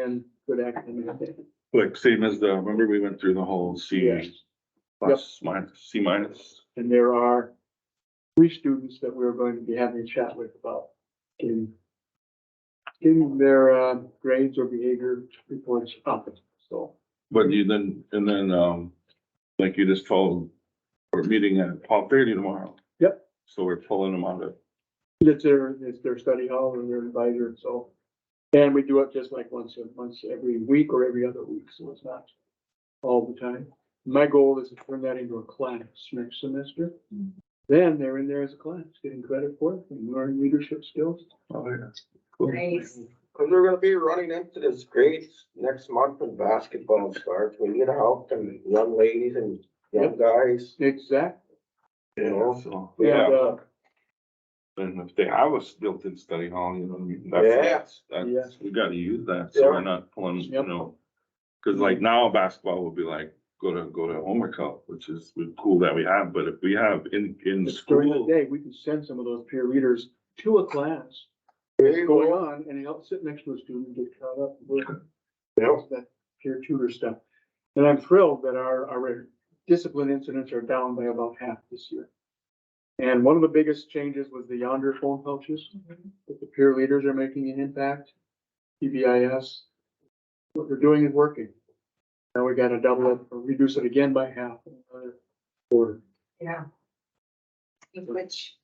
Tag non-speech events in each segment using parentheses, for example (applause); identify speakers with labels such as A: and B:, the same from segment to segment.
A: and good academic day.
B: Like same as the, remember we went through the whole
A: Yeah.
B: C plus minus, C minus?
A: And there are three students that we're going to be having a chat with about getting getting their uh, grades or behavior reports up, so.
B: But you then, and then, um, like you just told, we're meeting at twelve thirty tomorrow.
A: Yep.
B: So we're pulling them out of,
A: It's their, it's their study hall and their advisor, so. And we do it just like once, a once every week or every other week, so it's not all the time. My goal is to turn that into a class next semester. Then they're in there as a class, getting credit for it and learning leadership skills.
B: oh, yeah.
C: Nice.
D: Cause we're gonna be running into this grades next month when basketball starts. We need help and young ladies and young guys,
A: Exactly.
D: you know?
B: So,
A: And,
B: yeah,
A: uh,
B: and if they have a built-in study hall, you know what I mean? That's- That's, we gotta use that, so we're not pulling, you
A: Yep.
B: know. Cause like now basketball would be like, go to, go to homework help, which is cool that we have, but if we have in, in
A: It's During the
B: school.
A: day, we can send some of those peer readers to a class
D: There you
A: going
D: go.
A: on and help sit next to a student, and get caught up with
D: Yep.
A: that peer tutor stuff. And I'm thrilled that our, our discipline incidents are down by about half this year. And one of the biggest changes was the yonder phone coaches, that the peer leaders are making an impact, PBIS. What they're doing is working. Now we gotta double it, or reduce it again by half, in another quarter.
C: Yeah. Which,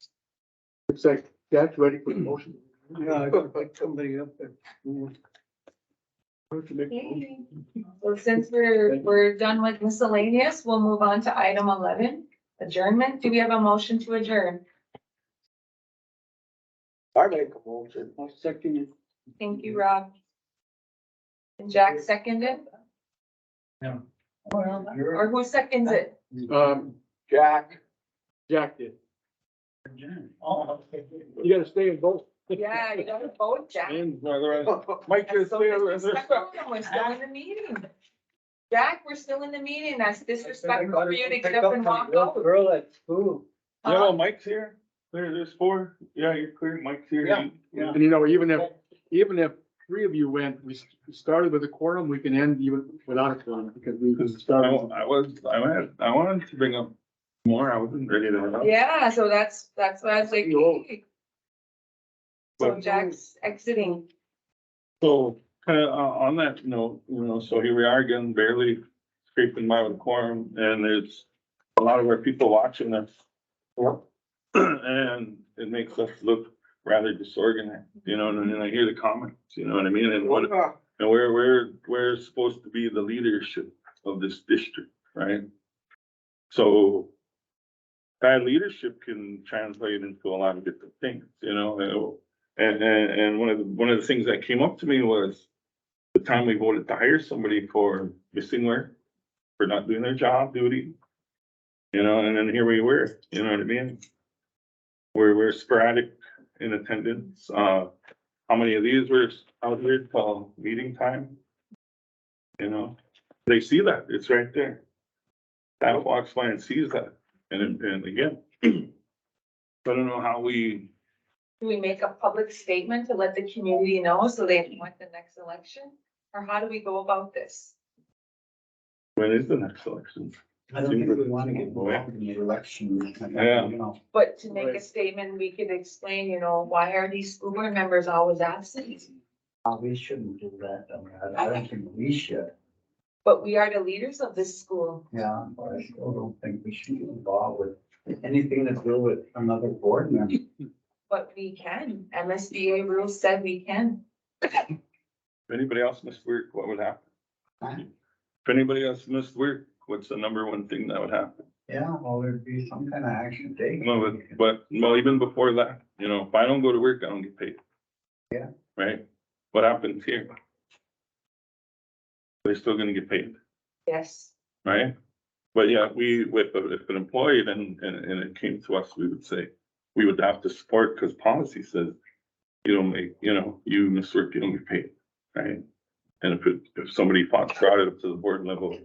A: It's like, that's ready for the motion.
E: Yeah, I could pick somebody up there.
A: Motion to make a motion.
C: Yay. well, since we're, we're done with miscellaneous, we'll move on to item eleven, adjournment. Do we have a motion to adjourn?
D: I make a motion.
E: I'll second it.
C: Thank you, Rob. And Jack seconded,
E: You're
C: or who seconds it?
A: Um,
D: Jack,
A: Jack did.
E: adjourned. Oh, okay.
A: You gotta stay in both.
C: Yeah, you gotta vote, Jack.
A: And
B: Mike
C: That's so disrespectful, and We're still in the meeting. Jack, we're still in the meeting. That's disrespectful for you to get up and walk out.
E: Girl at school.
B: No, Mike's here. There, there's four. Yeah, you're clear. Mike's here.
E: Yeah,
B: You-
E: yeah.
A: you know, even if, even if three of you went, we s- started with a quorum, we can end even without a quorum because we
B: Because I,
A: started.
B: I was, I had, I wanted to bring up more. I wasn't ready to.
C: Yeah, so that's, that's why I was like.
A: Yo.
C: hey. So Jack's exiting.
B: So, kind of, uh, on that note, you know, so here we are again, barely scraping by with quorum and there's a lot of our people watching us. (clears throat)
D: Yep.
B: And it makes us look rather disorganized, you know, and then I hear the comments, you know what I mean? And what,
D: uh,
B: And we're, we're, we're supposed to be the leadership of this district, right? So that leadership can translate into a lot of different things, you know, and, and, and one of the, one of the things that came up to me was the time we voted to hire somebody for missing work, for not doing their job duty. You know, and then here we were, you know what I mean? We're, we're sporadic in attendance, uh, how many of these were out here till meeting time? You know, they see that, it's right there. That walks by and sees that, and, and again. (clears throat) I don't know how we,
C: Do we make a public statement to let the community know so they know at the next election? Or how do we go about this?
B: when is the next election?
F: I don't think we wanna get involved in the election.
B: Yeah.
F: You know,
C: But to make a
A: Right.
C: statement, we could explain, you know, why are these school board members always absent?
F: uh, we shouldn't do that. I mean, I- I don't think we should.
C: But we are the leaders of this school.
F: Yeah, but I still don't think we should get involved with anything to do with another board (laughs) member.
C: But we can. MSBA rules said we can.
B: If anybody else missed work, what would happen?
F: Huh?
B: If anybody else missed work, what's the number one thing that would happen?
F: Yeah, well, there'd be some kind of action taken.
B: No, but, but, well, even before that, you know, if I don't go to work, I don't get paid.
F: Yeah.
B: Right? What happens here? They're still gonna get paid.
C: Yes.
B: right? But yeah, we, with, if an employee then, and, and it came to us, we would say, we would have to support, because policy says, you don't make, you know, you miss work, you don't get paid, right? And if, it- if somebody fought, brought it up to the board level,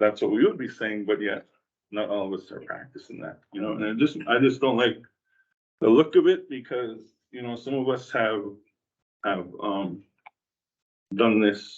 B: that's what we would be saying, but yet, not all of us are practicing that, you know, and I just, I just don't like the look of it, because, you know, some of us have, have, um, done this